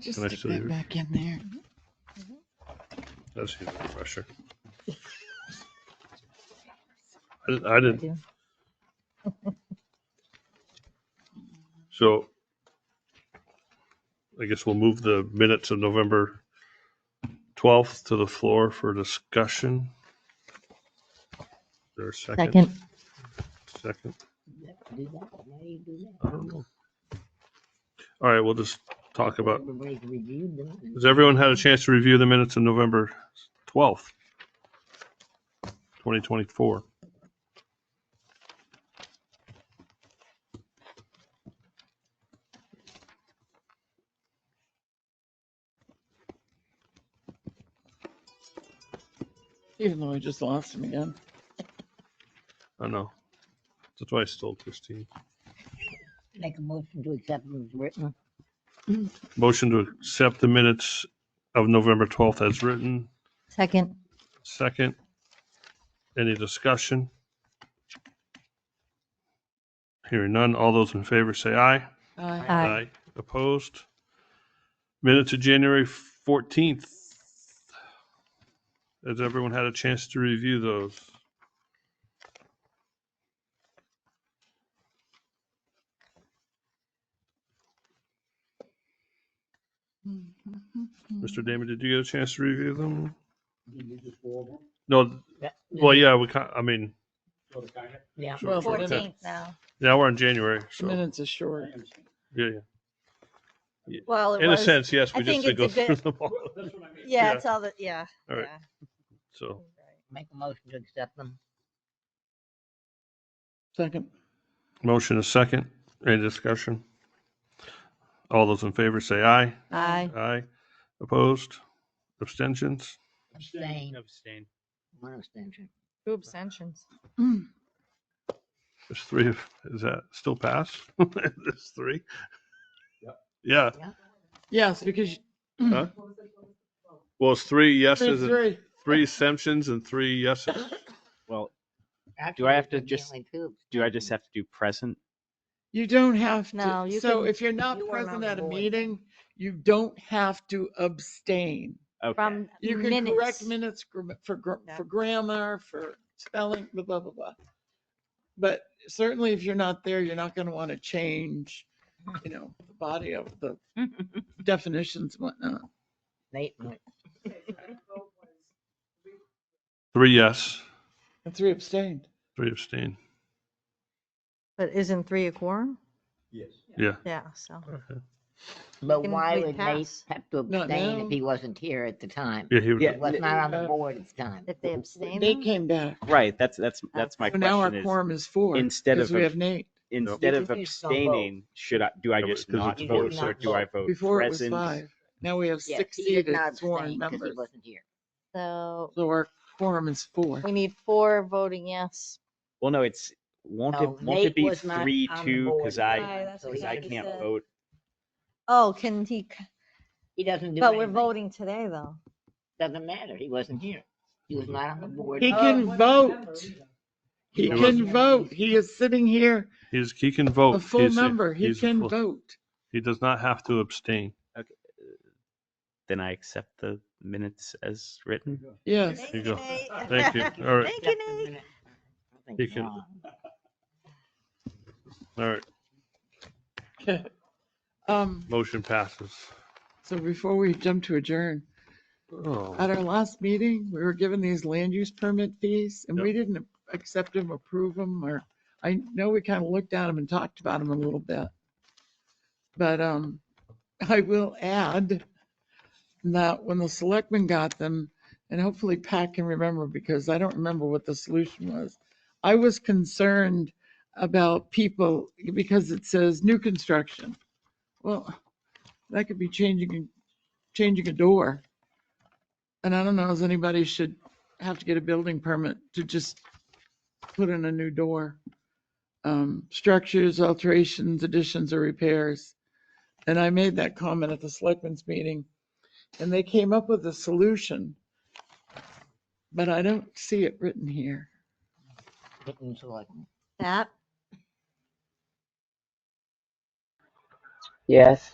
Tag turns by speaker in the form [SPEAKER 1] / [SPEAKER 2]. [SPEAKER 1] Just
[SPEAKER 2] Can I
[SPEAKER 1] stick
[SPEAKER 2] still
[SPEAKER 1] that
[SPEAKER 2] use-
[SPEAKER 1] back in there.
[SPEAKER 2] That's even refresher. I didn't, I didn't,
[SPEAKER 3] do.
[SPEAKER 2] so I guess we'll move the minutes of November 12th to the floor for discussion. Is There a second?
[SPEAKER 3] Second,
[SPEAKER 2] Second.
[SPEAKER 4] Do that. Why do you do that?
[SPEAKER 2] I don't know. All right, we'll just talk about,
[SPEAKER 4] Everybody's reviewed them.
[SPEAKER 2] has everyone had a chance to review the minutes of November 12th? 2024.
[SPEAKER 1] Even though I just lost him again.
[SPEAKER 2] I know. That's why I stole Christine.
[SPEAKER 4] Make a motion to accept them as written.
[SPEAKER 2] Motion to accept the minutes of November 12th as written.
[SPEAKER 3] second,
[SPEAKER 2] Second. Any discussion? Hearing none. All those in favor say aye.
[SPEAKER 1] Uh,
[SPEAKER 3] Aye.
[SPEAKER 2] Opposed? Minutes of January 14th. Has everyone had a chance to review those?
[SPEAKER 1] mm-hmm.
[SPEAKER 2] Mr. Damon, did you get a chance to review them?
[SPEAKER 4] Did you just go over?
[SPEAKER 2] No,
[SPEAKER 4] That-
[SPEAKER 2] well, yeah, we, ca- I mean,
[SPEAKER 4] Yeah.
[SPEAKER 2] Sure,
[SPEAKER 1] Well, the
[SPEAKER 2] okay.
[SPEAKER 1] minute-
[SPEAKER 3] fourteenth now.
[SPEAKER 2] now we're in January,
[SPEAKER 1] the
[SPEAKER 2] so,
[SPEAKER 1] minutes are short.
[SPEAKER 2] yeah,
[SPEAKER 3] Well,
[SPEAKER 2] yeah.
[SPEAKER 3] it
[SPEAKER 2] In a
[SPEAKER 3] was,
[SPEAKER 2] sense, yes, we
[SPEAKER 3] I
[SPEAKER 2] just
[SPEAKER 3] think
[SPEAKER 2] did go
[SPEAKER 3] it's a
[SPEAKER 2] through them all,
[SPEAKER 3] yeah,
[SPEAKER 2] yeah.
[SPEAKER 3] it's all the, yeah.
[SPEAKER 2] All right.
[SPEAKER 3] yeah.
[SPEAKER 2] so.
[SPEAKER 4] Make a motion to accept them.
[SPEAKER 1] Second.
[SPEAKER 2] Motion is second. Any discussion? All those in favor say aye.
[SPEAKER 3] Aye,
[SPEAKER 2] Aye. Opposed? Abstentions?
[SPEAKER 4] Abstain.
[SPEAKER 5] Abstain.
[SPEAKER 4] One abstention.
[SPEAKER 3] two abstentions.
[SPEAKER 2] There's three of, is that still pass? There's three? Yeah,
[SPEAKER 1] Yes, because
[SPEAKER 2] Huh? well, it's three yeses, and
[SPEAKER 1] three.
[SPEAKER 2] three abstentions and three yeses.
[SPEAKER 5] Well,
[SPEAKER 4] Actually,
[SPEAKER 5] I have to
[SPEAKER 4] there'd be
[SPEAKER 5] just-
[SPEAKER 4] only two
[SPEAKER 5] do I just have to do present?
[SPEAKER 1] You don't have to.
[SPEAKER 3] No, you
[SPEAKER 1] so
[SPEAKER 3] can-
[SPEAKER 1] if you're not
[SPEAKER 3] you are
[SPEAKER 1] present
[SPEAKER 3] not
[SPEAKER 1] at a
[SPEAKER 3] void.
[SPEAKER 1] meeting, you don't have to abstain.
[SPEAKER 5] Okay.
[SPEAKER 3] From
[SPEAKER 1] You can correct
[SPEAKER 3] minutes.
[SPEAKER 1] minutes gr- for gr-
[SPEAKER 3] Yeah.
[SPEAKER 1] for grammar, for spelling, blah blah blah. blah. But certainly, if you're not there, you're not going to want to change, you know, the body of the definitions and whatnot.
[SPEAKER 4] statement.
[SPEAKER 2] Three yes,
[SPEAKER 1] And three abstained.
[SPEAKER 2] three abstain.
[SPEAKER 3] But isn't three a quorum?
[SPEAKER 2] Yeah.
[SPEAKER 3] Yeah, so.
[SPEAKER 4] But
[SPEAKER 3] can-
[SPEAKER 4] why
[SPEAKER 3] we
[SPEAKER 4] would Nate
[SPEAKER 3] pass.
[SPEAKER 4] have to
[SPEAKER 1] Not
[SPEAKER 4] abstain
[SPEAKER 1] now.
[SPEAKER 4] if he wasn't here at the time?
[SPEAKER 2] Yeah, he was,
[SPEAKER 5] Yeah.
[SPEAKER 4] He was not on the
[SPEAKER 1] Uh,
[SPEAKER 4] board at the time.
[SPEAKER 3] If they abstain,
[SPEAKER 1] They
[SPEAKER 3] then?
[SPEAKER 1] came back.
[SPEAKER 5] Right, that's,
[SPEAKER 4] Oh.
[SPEAKER 5] that's, that's my
[SPEAKER 1] So now our
[SPEAKER 5] question is,
[SPEAKER 1] quorum is four.
[SPEAKER 5] instead
[SPEAKER 1] because
[SPEAKER 5] of
[SPEAKER 1] we
[SPEAKER 5] a-
[SPEAKER 1] have Nate.
[SPEAKER 5] instead
[SPEAKER 4] You
[SPEAKER 5] of
[SPEAKER 4] can just don't vote.
[SPEAKER 5] abstaining, should I, do I
[SPEAKER 2] Yeah, but-
[SPEAKER 5] just
[SPEAKER 2] 'cause
[SPEAKER 5] not
[SPEAKER 2] it's
[SPEAKER 5] vote
[SPEAKER 4] voted.
[SPEAKER 5] or do I vote
[SPEAKER 1] Before it was five.
[SPEAKER 5] present?
[SPEAKER 1] Now we have
[SPEAKER 4] Yes,
[SPEAKER 1] six
[SPEAKER 4] he did
[SPEAKER 1] seated
[SPEAKER 4] not
[SPEAKER 1] sworn
[SPEAKER 4] abstain 'cause He
[SPEAKER 1] members.
[SPEAKER 4] wasn't here.
[SPEAKER 3] so
[SPEAKER 1] So our quorum is four.
[SPEAKER 3] we need four voting yes.
[SPEAKER 5] Well, no, it's, won't
[SPEAKER 4] No,
[SPEAKER 5] it, won't it
[SPEAKER 4] Nate
[SPEAKER 5] be
[SPEAKER 4] was not
[SPEAKER 5] three,
[SPEAKER 4] on the
[SPEAKER 5] two,
[SPEAKER 4] board
[SPEAKER 5] because
[SPEAKER 4] at the
[SPEAKER 3] Aye,
[SPEAKER 5] I,
[SPEAKER 4] time,
[SPEAKER 3] that's
[SPEAKER 4] so
[SPEAKER 3] what
[SPEAKER 4] he
[SPEAKER 5] because I
[SPEAKER 3] Jackie
[SPEAKER 4] doesn't-
[SPEAKER 5] can't
[SPEAKER 3] said.
[SPEAKER 5] vote.
[SPEAKER 3] Oh, can he, c-
[SPEAKER 4] He doesn't do
[SPEAKER 3] but we're
[SPEAKER 4] anything.
[SPEAKER 3] voting today though.
[SPEAKER 4] Doesn't matter. He wasn't here. He was not on the board.
[SPEAKER 1] He
[SPEAKER 4] Oh,
[SPEAKER 1] can vote. He
[SPEAKER 4] He
[SPEAKER 1] can
[SPEAKER 4] wasn't-
[SPEAKER 1] vote. He is sitting here,
[SPEAKER 2] he's, he can vote.
[SPEAKER 5] Oh,
[SPEAKER 1] a full
[SPEAKER 2] He's
[SPEAKER 1] member. He
[SPEAKER 2] he's a
[SPEAKER 1] can
[SPEAKER 2] full-
[SPEAKER 1] vote.
[SPEAKER 2] He does not have to abstain.
[SPEAKER 5] Then I accept the minutes as written.
[SPEAKER 1] Yes.
[SPEAKER 2] you go. Thank you. All right.
[SPEAKER 3] Thank
[SPEAKER 4] Just a
[SPEAKER 3] you, Nate.
[SPEAKER 4] minute. I think
[SPEAKER 2] He
[SPEAKER 4] it's
[SPEAKER 2] can-
[SPEAKER 4] wrong.
[SPEAKER 2] All right,
[SPEAKER 1] Um,
[SPEAKER 2] motion passes.
[SPEAKER 1] so before we jump to adjourn,
[SPEAKER 2] Oh.
[SPEAKER 1] at our last meeting, we were given these land use permit fees and we didn't accept them, approve them, or I know we kind of looked at them and talked about them a little bit. But, um, I will add that when the selectmen got them, and hopefully Pat can remember because I don't remember what the solution was. I was concerned about people because it says new construction. Well, that could be changing, changing a door. And I don't know if anybody should have to get a building permit to just put in a new door. Um, structures, alterations, additions or repairs. And I made that comment at the selectmen's meeting and they came up with a solution. But I don't see it written here.
[SPEAKER 4] Didn't select me.
[SPEAKER 3] That,
[SPEAKER 6] Yes.